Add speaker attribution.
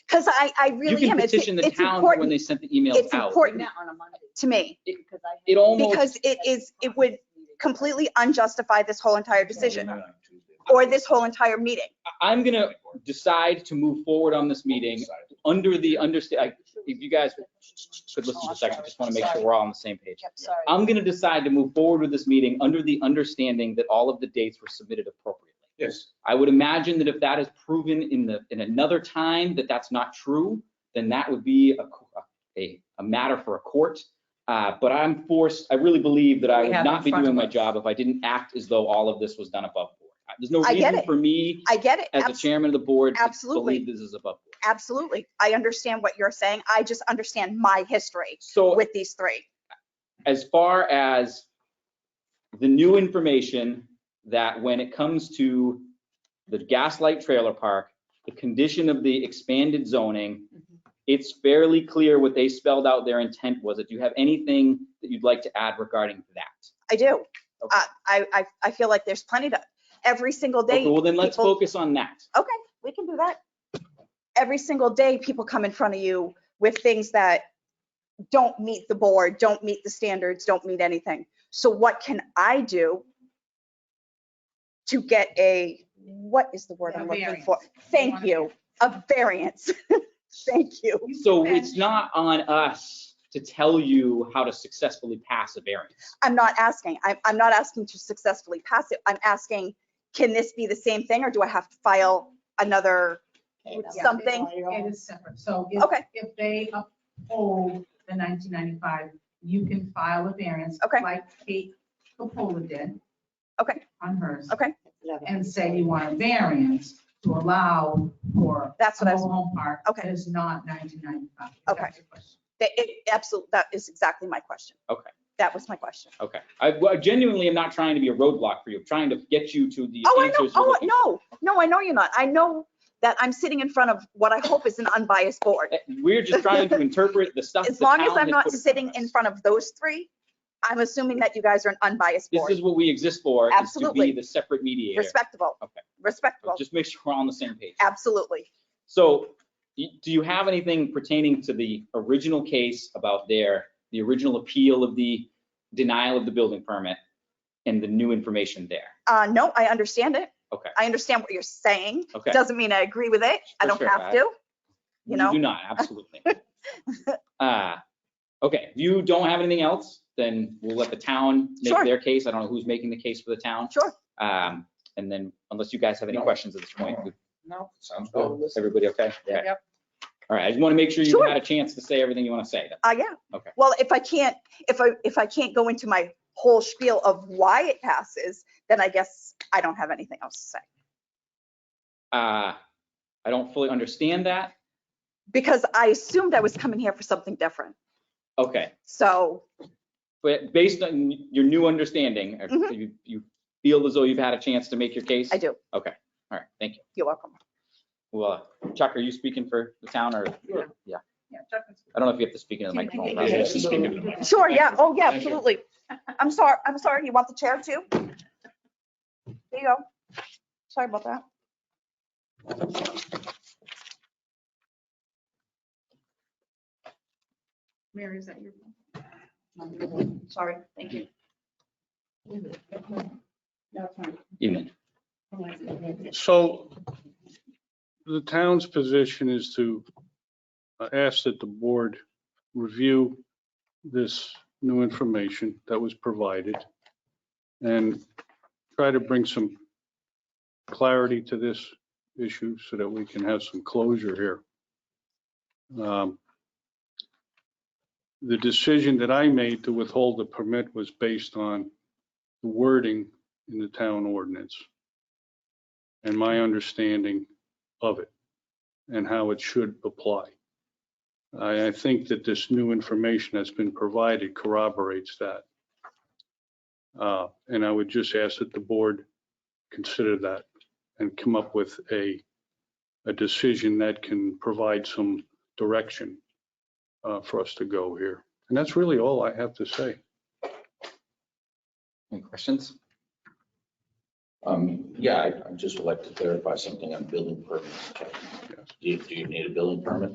Speaker 1: because I, I
Speaker 2: You
Speaker 1: really
Speaker 2: can
Speaker 1: am. It's,
Speaker 2: petition the
Speaker 1: it's
Speaker 2: town for when
Speaker 1: important
Speaker 2: they sent the emails
Speaker 1: it's
Speaker 2: out.
Speaker 1: important
Speaker 3: on a Monday.
Speaker 1: to me
Speaker 2: It-
Speaker 3: because I
Speaker 2: It
Speaker 3: have-
Speaker 2: almost.
Speaker 1: because it is, it would completely unjustify this whole entire decision or this whole entire meeting.
Speaker 2: I- I'm gonna decide to move forward on this meeting under the understa, if you guys could listen for a second, I just wanna make sure we're all on the same page.
Speaker 3: Yep, sorry.
Speaker 2: I'm gonna decide to move forward with this meeting under the understanding that all of the dates were submitted appropriately.
Speaker 4: Yes.
Speaker 2: I would imagine that if that is proven in the, in another time, that that's not true, then that would be a, co- a, a matter for a court. Uh, but I'm forced, I really believe that I
Speaker 5: We
Speaker 2: would
Speaker 5: have
Speaker 2: not
Speaker 5: in
Speaker 2: be
Speaker 5: front
Speaker 2: doing
Speaker 5: of
Speaker 2: my
Speaker 5: us.
Speaker 2: job if I didn't act as though all of this was done above board. There's no
Speaker 1: I get
Speaker 2: reason
Speaker 1: it.
Speaker 2: for me
Speaker 1: I get it.
Speaker 2: as the
Speaker 1: abs-
Speaker 2: chairman of the board to
Speaker 1: absolutely.
Speaker 2: believe this is above board.
Speaker 1: Absolutely. I understand what you're saying. I just understand my history
Speaker 2: So
Speaker 1: with these three.
Speaker 2: as far as the new information that when it comes to the Gaslight Trailer Park, the condition of the expanded zoning,
Speaker 1: Mm-hmm.
Speaker 2: it's fairly clear what they spelled out their intent was. If you have anything that you'd like to add regarding that.
Speaker 1: I do.
Speaker 2: Okay.
Speaker 1: I, I, I- I feel like there's plenty to, every single
Speaker 2: Okay,
Speaker 1: day.
Speaker 2: well then let's
Speaker 1: people-
Speaker 2: focus on that.
Speaker 1: Okay, we can do that. Every single day, people come in front of you with things that don't meet the board, don't meet the standards, don't meet anything. So what can I do to get a, what is the word
Speaker 5: A
Speaker 1: I'm looking for? Thank
Speaker 5: wanna-
Speaker 1: you, a variance. Thank you.
Speaker 2: So it's not on us to tell you how to successfully pass a variance.
Speaker 1: I'm not asking, I'm, I'm not asking to successfully pass it. I'm asking, can this be the same thing or do I have to file another?
Speaker 5: Yeah.
Speaker 1: something.
Speaker 5: It is separate. So
Speaker 1: Okay.
Speaker 5: if, if they uphold the 1995, you can file a variance.
Speaker 1: Okay.
Speaker 5: Like Kate Capola did.
Speaker 1: Okay.
Speaker 5: On hers.
Speaker 1: Okay.
Speaker 5: And say you want a variance to allow for
Speaker 1: That's
Speaker 5: a
Speaker 1: what I was,
Speaker 5: mobile home park
Speaker 1: Okay.
Speaker 5: that is not 1995.
Speaker 1: Okay.
Speaker 5: That's the question.
Speaker 1: that, it, absolutely, that is exactly my question.
Speaker 2: Okay.
Speaker 1: That was my question.
Speaker 2: Okay. I well, I genuinely am not trying to be a roadblock for you. I'm trying to get you to the
Speaker 1: Oh, I know,
Speaker 2: answers you're
Speaker 1: oh,
Speaker 2: looking for.
Speaker 1: no, no, I know you're not. I know that I'm sitting in front of what I hope is an unbiased board.
Speaker 2: We're just trying to interpret the stuff.
Speaker 1: As
Speaker 2: the
Speaker 1: long as
Speaker 2: town
Speaker 1: I'm
Speaker 2: has
Speaker 1: not
Speaker 2: put
Speaker 1: sitting in front of those three, I'm assuming that you guys are an unbiased
Speaker 2: This
Speaker 1: board,
Speaker 2: is what we exist for, is to be
Speaker 1: Absolutely.
Speaker 2: the separate mediator.
Speaker 1: respectable,
Speaker 2: Okay.
Speaker 1: respectable,
Speaker 2: Just make sure we're on the same page.
Speaker 1: absolutely.
Speaker 2: So y- do you have anything pertaining to the original case about their, the original appeal of the denial of the building permit and the new information there?
Speaker 1: Uh, no, I understand it.
Speaker 2: Okay,
Speaker 1: I understand what you're saying.
Speaker 2: okay.
Speaker 1: Doesn't mean I agree with it. I
Speaker 2: For
Speaker 1: don't
Speaker 2: sure,
Speaker 1: have
Speaker 2: I-
Speaker 1: to. You know?
Speaker 2: do not, absolutely. Uh, Okay, if you don't have anything else, then we'll let the town make
Speaker 1: Sure.
Speaker 2: their case. I don't know who's making the case for the town.
Speaker 1: Sure.
Speaker 2: Um, And then unless you guys have any
Speaker 4: No.
Speaker 2: questions at this point, we
Speaker 4: No, sounds
Speaker 2: Oh, Everybody okay? Okay.
Speaker 5: Yep.
Speaker 2: All right, I just want to make sure you
Speaker 1: Sure.
Speaker 2: had a chance to say everything you want to say.
Speaker 1: Uh, yeah.
Speaker 2: Okay.
Speaker 1: Well, if I can't, if I, if I can't go into my whole spiel of why it passes, then I guess I don't have anything else to say.
Speaker 2: Uh, I don't fully understand that.
Speaker 1: Because I assumed I was coming here for something different.
Speaker 2: Okay,
Speaker 1: So,
Speaker 2: but based on your new understanding, uh,
Speaker 1: Mhm.
Speaker 2: you, you feel as though you've had a chance to make your case?
Speaker 1: I do.
Speaker 2: Okay, all right, thank you.
Speaker 1: You're welcome.
Speaker 2: Well, uh, Chuck, are you speaking for the town or,
Speaker 4: Sure.
Speaker 2: yeah,
Speaker 5: Yeah, Chuck is-
Speaker 2: I don't know if you have to speak into the
Speaker 5: Can-
Speaker 2: microphone.
Speaker 5: can-
Speaker 2: but-
Speaker 5: Yeah.
Speaker 1: Sure, yeah. Oh, yeah,
Speaker 4: Thank you.
Speaker 1: absolutely. I'm sorry, I'm sorry. You want the chair too? There you go. Sorry about that.
Speaker 5: Mary, is that your?
Speaker 1: Sorry. Thank you.
Speaker 2: Evening.
Speaker 6: So the town's position is to uh, ask that the board review this new information that was provided and try to bring some clarity to this issue so that we can have some closure here. Um, The decision that I made to withhold the permit was based on the wording in the town ordinance and my understanding of it and how it should apply. I, I think that this new information that's been provided corroborates that. Uh, And I would just ask that the board consider that and come up with a, a decision that can provide some direction uh, for us to go here. And that's really all I have to say.
Speaker 2: Any questions?
Speaker 4: Um, yeah, I- I just would like to clarify something on building permits. Do you, do you need a building permit?